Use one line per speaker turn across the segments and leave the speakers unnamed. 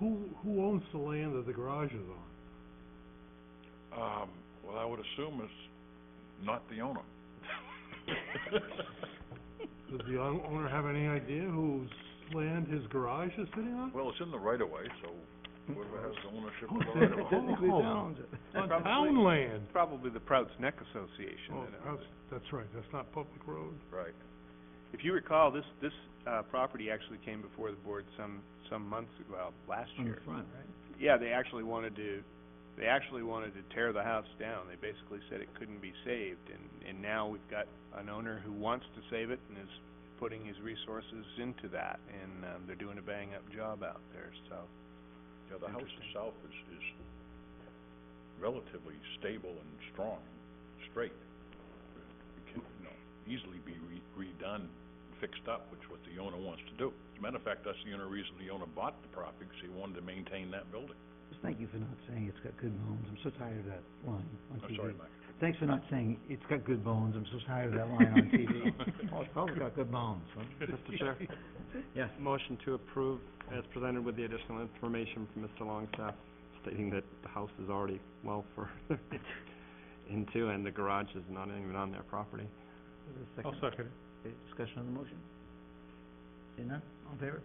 Who, who owns the land that the garage is on?
Um, well, I would assume it's not the owner.
Does the own- owner have any idea whose land his garage is sitting on?
Well, it's in the right of way, so whoever has the ownership of the
Who
right
said
of way.
Oh,
Technically, it owns On town land!
Probably the Prouts Neck Association
Oh,
that owns
that's, that's right, that's not public road.
Right.
it. If you recall, this, this, uh, property actually came before the board some, some months, well, last year.
front, right?
Yeah, they actually wanted to, they actually wanted to tear the house down. They basically said it couldn't be saved, and, and now we've got an owner who wants to save it and is putting his resources into that, and, um, they're doing a bang-up job out there, so.
Yeah, the house
Interesting.
itself is, is relatively stable and strong, straight. It can, you know, easily be re- redone, fixed up, which what the owner wants to do. As a matter of fact, that's the only reason the owner bought the property, because he wanted to maintain that building.
Just thank you for not saying it's got good bones, I'm so tired of that line
Oh,
on
I'm
TV.
sorry, Mike.
Thanks for not saying it's got good bones, I'm so tired of that line on TV. Oh, it's probably got good bones, huh?
Mr. Chair,
Yes.
motion to approve as presented with the additional information from Mr. Longstaff stating that the house is already well further into and the garage is not even on their property.
I'll second it. Okay, discussion on the motion? Seeing none, all in favor?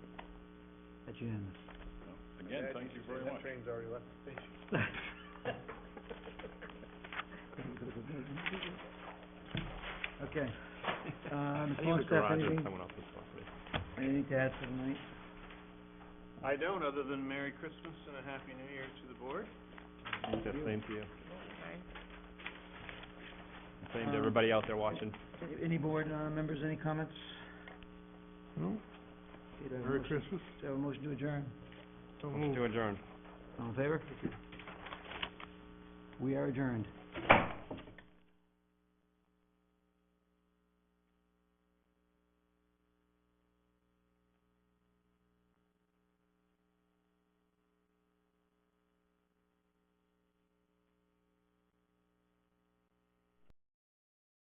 That's unanimous.
Again, thank you very much.
Okay, uh, Mr.
I think the
Longstaff,
garage is
anything,
someone else's property.
anything to add for tonight?
I don't, other than Merry Christmas and a Happy New Year to the board.
Yeah, same to you. Same
Um,
to everybody out there watching.
Any board, uh, members, any comments?
No?
Okay, do I have a
Merry
motion-
Christmas.
do I have a motion to adjourn?
Don't
Motion
move.
to adjourn.
All in favor? We are adjourned.